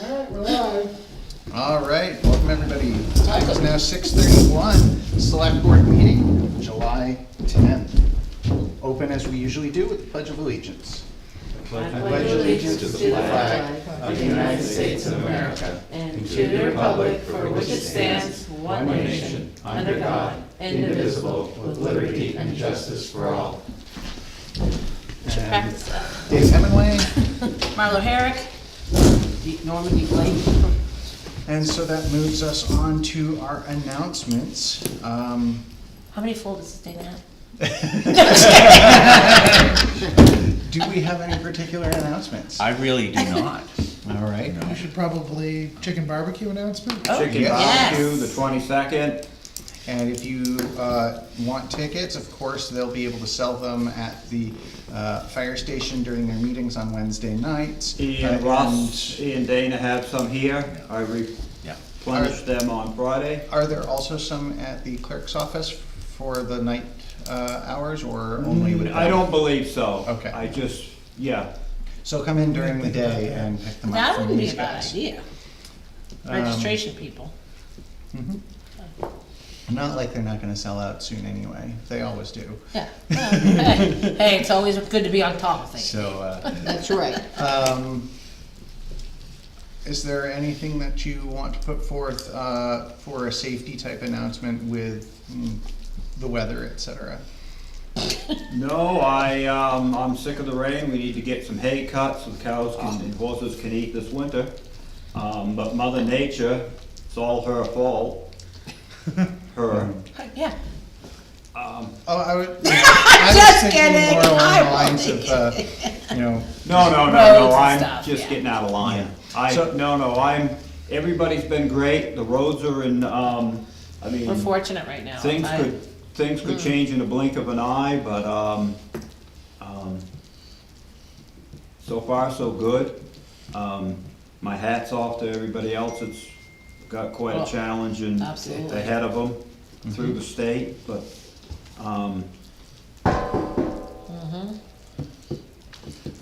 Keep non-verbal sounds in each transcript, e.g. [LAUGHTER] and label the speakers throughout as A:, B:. A: All right, we're live.
B: All right, welcome everybody. The time is now six thirty-one, select board meeting, July tenth. Open as we usually do with the pledge of allegiance.
C: I pledge allegiance to the flag of the United States of America and to the republic for which it stands, one nation, under God, indivisible, with liberty and justice for all.
B: And
D: Practice that.
B: Dave Hemingway,
D: Marlo Herrick, D- Norman D. Blake.
B: and so that moves us on to our announcements. Um,
D: How many folders does Dana have?
B: Do we have any particular announcements?
E: I really do not.
B: All right.
A: We should probably chicken barbecue announcement.
E: Chicken
B: yes.
E: barbecue, the twenty-second.
B: And if you uh, want tickets, of course, they'll be able to sell them at the uh, fire station during their meetings on Wednesday nights.
E: Ian
B: Uh,
E: Ross, Ian Dana have some here. I replenished them on Friday.
B: and Are there also some at the clerk's office for the night uh, hours or only with?
E: Mm, I don't believe so.
B: Okay.
E: I just, yeah.
B: So come in during the day and pick them up
D: That
B: from
D: wouldn't be
B: these
D: a bad
B: guys.
D: idea.
E: Um,
D: Registration people.
B: Not like they're not gonna sell out soon anyway. They always do.
D: Yeah. Well,
E: [LAUGHS]
D: Hey, hey, it's always good to be on top of things.
B: So, uh,
D: That's right.
B: Um, is there anything that you want to put forth, uh, for a safety type announcement with mm, the weather, et cetera?
E: No, I, um, I'm sick of the rain. We need to get some hay cut so the cows can, and horses can eat this winter. Um, but Mother Nature, it's all
B: [LAUGHS]
E: her fault. Her.
D: Yeah.
B: Oh, I would, I was thinking
D: kidding.
B: more along the
D: I'm
B: lines of, uh, you know,
E: No, no,
D: Roads
E: no, no,
D: and
E: I'm
D: stuff,
E: just
D: yeah.
E: getting out of line.
B: Yeah.
E: I,
B: So-
E: no, no, I'm, everybody's been great, the roads are in, um, I mean,
D: We're fortunate right now.
E: things
D: I-
E: could, things could
D: Hmm.
E: change in a blink of an eye, but, um, um, so far, so good. Um, my hat's off to everybody else, it's got quite
D: Well,
E: a challenge and
D: absolutely.
E: ahead of them through the state, but, um,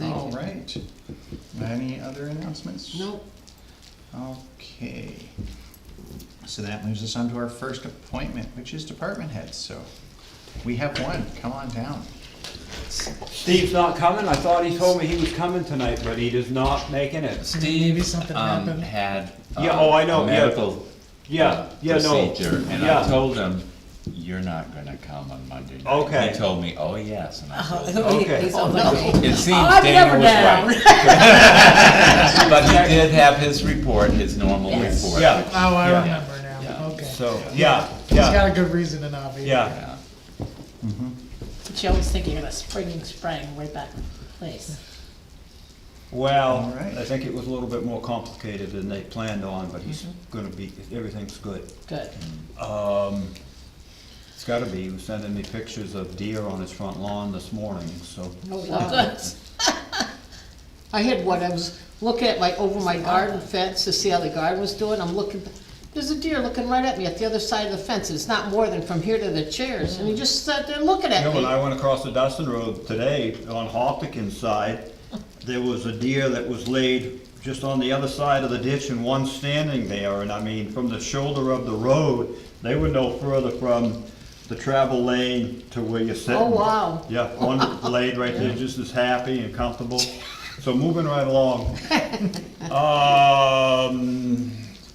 B: all right. Any other announcements? Nope. Okay. So that moves us on to our first appointment, which is department heads, so we have one, come on down.
E: Steve's not coming, I thought he told me he was coming tonight, but he is not making it.
A: Maybe
F: Steve,
A: something
F: um,
A: happened.
F: had. uh,
E: Yeah, oh, I know,
F: a
E: yeah.
F: Medical
E: Yeah, yeah, no.
F: procedure, and I
E: Yeah,
F: told him, you're not gonna come on Monday night.
E: Okay.
F: He told me, oh, yes, and I
D: Oh, [LAUGHS]
F: told him.
D: he-
E: Okay.
D: he's
E: Oh,
D: on
F: So,
E: [LAUGHS]
D: my-
F: It seems
D: I'm
F: Dana
D: never
F: was
D: down.
F: right, but he did have his report, his normal
D: Yes.
F: report.
E: yeah,
A: Oh, I
F: Yeah.
A: remember now,
F: Yeah.
A: okay. He's
E: so, yeah, yeah,
A: got a good reason to not be.
E: yeah.
F: Yeah.
D: But you always think you're gonna spring, spring right back in place.
B: All
E: Well,
B: right.
E: I think it was a little bit more complicated than they planned on, but he's
B: Mm-hmm.
E: gonna be, everything's good.
D: Good.
E: Um, it's gotta be, he was sending me pictures of deer on his front lawn this morning, so. Uh,
D: Oh, good.
G: [LAUGHS] I had one, I was looking at my, over my garden fence to see how the garden was doing, I'm looking, there's a deer looking right at me at the other side of the fence, it's not more than from here to the chairs, and he just sat there looking
E: You
G: at
E: know, when
G: me.
E: I went across the Dustin Road today on Hopkin's side, there was a deer that was laid just on the other side of the ditch and one standing there. And I mean, from the shoulder of the road, they were no further from the travel lane to where you're sitting.
G: Oh, wow.
E: Yeah, one laid right there, just as happy and comfortable. So moving
G: [LAUGHS]
E: right along. Um,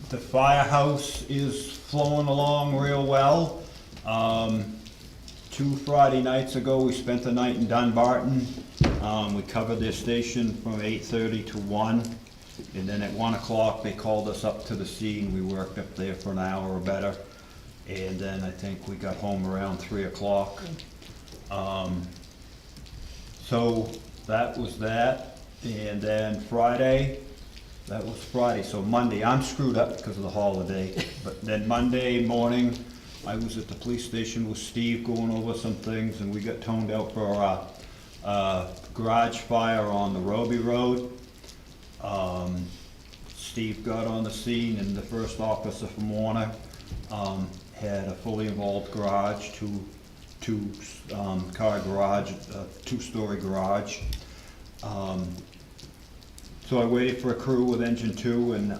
E: the firehouse is flowing along real well. Um, two Friday nights ago, we spent the night in Dunbarton. Um, we covered their station from eight-thirty to one. And then at one o'clock, they called us up to the scene. We worked up there for an hour or better. And then I think we got home around three o'clock. Um, so that was that, and then Friday, that was Friday, so Monday, I'm screwed up because of the holiday. But then Monday morning, I was at the police station with Steve going over some things, and we got toned out for our, uh, garage fire on the Roby Road. Um, Steve got on the scene and the first officer from Warner, um, had a fully involved garage, two, two, um, car garage, a two-story garage. Um, So I waited for a crew with engine two, and